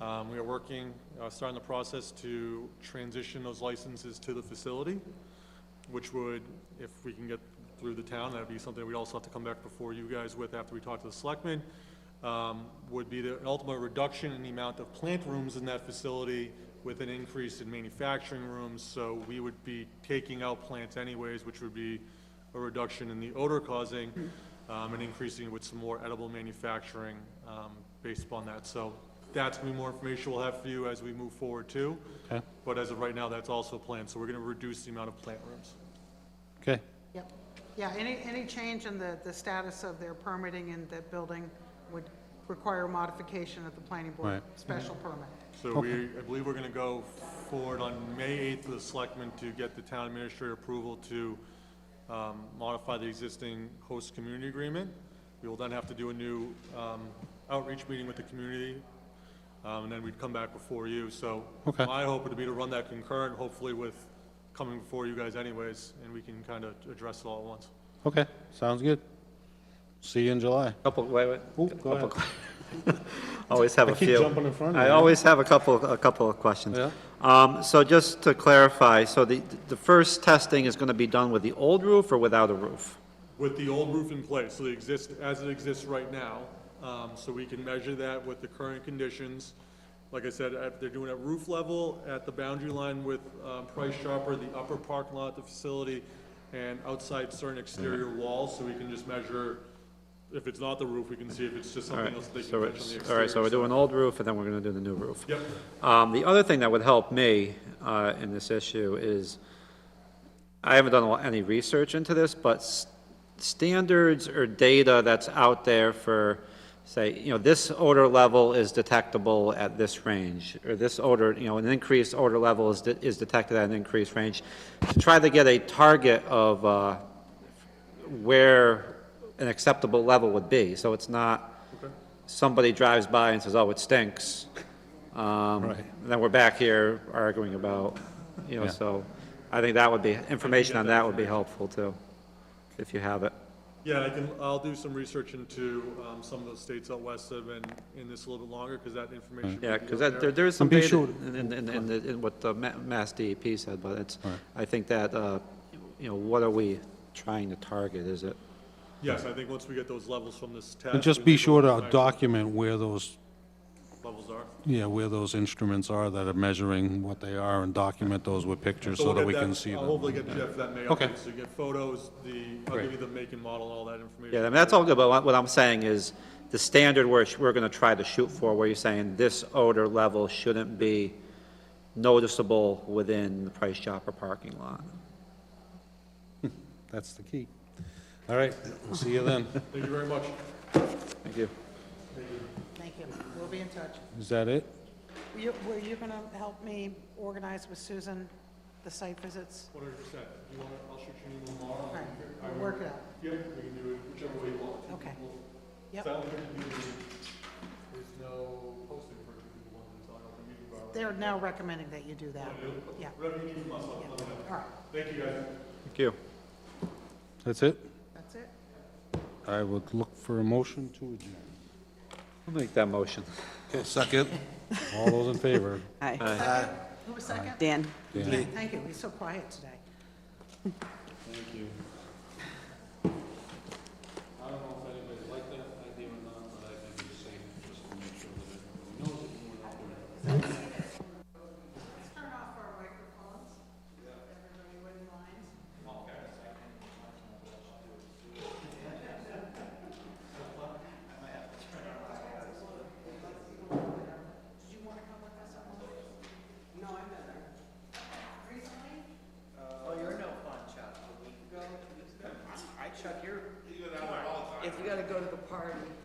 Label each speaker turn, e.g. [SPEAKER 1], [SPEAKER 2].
[SPEAKER 1] Um, We are working, uh, starting the process to transition those licenses to the facility, which would, if we can get through the town, that'd be something we'd also have to come back before you guys with after we talk to the selectmen, um, would be the ultimate reduction in the amount of plant rooms in that facility with an increase in manufacturing rooms. So we would be taking out plants anyways, which would be a reduction in the odor causing, um, and increasing with some more edible manufacturing, um, based upon that. So that's gonna be more information we'll have for you as we move forward too.
[SPEAKER 2] Okay.
[SPEAKER 1] But as of right now, that's also planned, so we're gonna reduce the amount of plant rooms.
[SPEAKER 2] Okay,
[SPEAKER 3] Yep. Yeah, any, any change in the, the status of their permitting in that building would require modification of the planning board
[SPEAKER 2] Right.
[SPEAKER 3] special permit.
[SPEAKER 1] So we, I believe we're gonna go forward on May 8th with the selectmen to get the town administrator approval to um, modify the existing host community agreement. We will then have to do a new um, outreach meeting with the community, um, and then we'd come back before you. So
[SPEAKER 2] Okay.
[SPEAKER 1] my hope would be to run that concurrent, hopefully with coming before you guys anyways, and we can kind of address it all at once.
[SPEAKER 2] okay, sounds good. See you in July.
[SPEAKER 4] Couple, wait, wait.
[SPEAKER 2] Ooh, go
[SPEAKER 4] Couple-
[SPEAKER 2] ahead.
[SPEAKER 4] Always have
[SPEAKER 2] I
[SPEAKER 4] a
[SPEAKER 2] keep
[SPEAKER 4] few.
[SPEAKER 2] jumping in front of
[SPEAKER 4] I
[SPEAKER 2] you.
[SPEAKER 4] always have a couple, a couple of questions.
[SPEAKER 2] Yeah.
[SPEAKER 4] Um, so just to clarify, so the, the first testing is gonna be done with the old roof or without a roof?
[SPEAKER 1] With the old roof in place, so it exists, as it exists right now, um, so we can measure that with the current conditions. Like I said, at- they're doing it roof level, at the boundary line with, um, Price Chopper, the upper parking lot, the facility, and outside certain exterior walls, so we can just measure, if it's not the roof, we can see if it's just
[SPEAKER 4] All right,
[SPEAKER 1] something else they can
[SPEAKER 4] so
[SPEAKER 1] catch on the
[SPEAKER 4] it's,
[SPEAKER 1] exterior.
[SPEAKER 4] all right, so we're doing old roof, and then we're gonna do the new roof.
[SPEAKER 1] Yep,
[SPEAKER 4] Um, the other thing that would help me, uh, in this issue is, I haven't done a lot- any research into this, but s- standards or data that's out there for, say, you know, this odor level is detectable at this range, or this odor, you know, an increased odor level is, de- is detected at an increased range, to try to get a target of, uh, where an acceptable level would be, so it's not somebody drives by and says, oh, it stinks. Um,
[SPEAKER 2] Right.
[SPEAKER 4] And then we're back here arguing about, you know,
[SPEAKER 2] Yeah.
[SPEAKER 4] so I think that would be, information on that would be helpful too, if you have it.
[SPEAKER 1] yeah, I can, I'll do some research into, um, some of the states out west that have been in this a little bit longer, because that information.
[SPEAKER 4] Yeah,
[SPEAKER 1] would be
[SPEAKER 4] because
[SPEAKER 1] out there.
[SPEAKER 4] that, there, there is some
[SPEAKER 2] And be
[SPEAKER 4] data
[SPEAKER 2] sure-
[SPEAKER 4] in, in, in- in, the- in what the Ma- Mass DEP said, but it's,
[SPEAKER 2] Right.
[SPEAKER 4] I think that, uh, you know, what are we trying to target? Is it?
[SPEAKER 1] Yes, I think once we get those levels from this test.
[SPEAKER 2] And just
[SPEAKER 1] we
[SPEAKER 2] be
[SPEAKER 1] can go
[SPEAKER 2] sure to
[SPEAKER 1] back
[SPEAKER 2] document where those,
[SPEAKER 1] what Levels are.
[SPEAKER 2] yeah, where those instruments are that are measuring what they are and document those with pictures so
[SPEAKER 1] we'll
[SPEAKER 2] that
[SPEAKER 1] get
[SPEAKER 2] we can see
[SPEAKER 1] I'll
[SPEAKER 2] them.
[SPEAKER 1] hopefully get Jeff that mail.
[SPEAKER 2] Okay.
[SPEAKER 1] So you get photos, the, I'll
[SPEAKER 4] Great.
[SPEAKER 1] give you the make and model, and all that information.
[SPEAKER 4] Yeah, I mean, that's all good, but what- what I'm saying is, the standard where sh- we're gonna try to shoot for, where you're saying this odor level shouldn't be noticeable within the Price Chopper parking lot.
[SPEAKER 2] That's the key. All right, we'll see you then.
[SPEAKER 1] Thank you very much.
[SPEAKER 4] Thank you.
[SPEAKER 3] Thank you. We'll be in touch.
[SPEAKER 2] Is that it?
[SPEAKER 3] You, were you gonna help me organize with Susan the site visits?
[SPEAKER 1] One hundred percent. You want, I'll shoot you an email tomorrow.
[SPEAKER 3] All right, we'll work it out.
[SPEAKER 1] Yeah, we can do it whichever way you want.
[SPEAKER 3] Okay.
[SPEAKER 1] It's
[SPEAKER 3] Yep.
[SPEAKER 1] not like we can do- There's no posting for two people, one, it's not like a meeting bar.
[SPEAKER 3] They're now recommending that you do that. Yeah,
[SPEAKER 1] Whatever you need from us, I'll let me know.
[SPEAKER 3] all right,
[SPEAKER 1] Thank you, guys.
[SPEAKER 4] Thank you.
[SPEAKER 2] That's it?
[SPEAKER 3] that's it.
[SPEAKER 2] I would look for a motion to adjourn.
[SPEAKER 4] I'll make that motion.
[SPEAKER 2] Okay, second. All those in favor?
[SPEAKER 5] Hi,
[SPEAKER 3] Who was second?
[SPEAKER 5] Dan.
[SPEAKER 2] Dan.
[SPEAKER 3] Thank you, he's so quiet today. Thank you.
[SPEAKER 6] Oh, you're no fun, Chuck. A week ago, two weeks ago? I, Chuck, you're. If you gotta go to the party.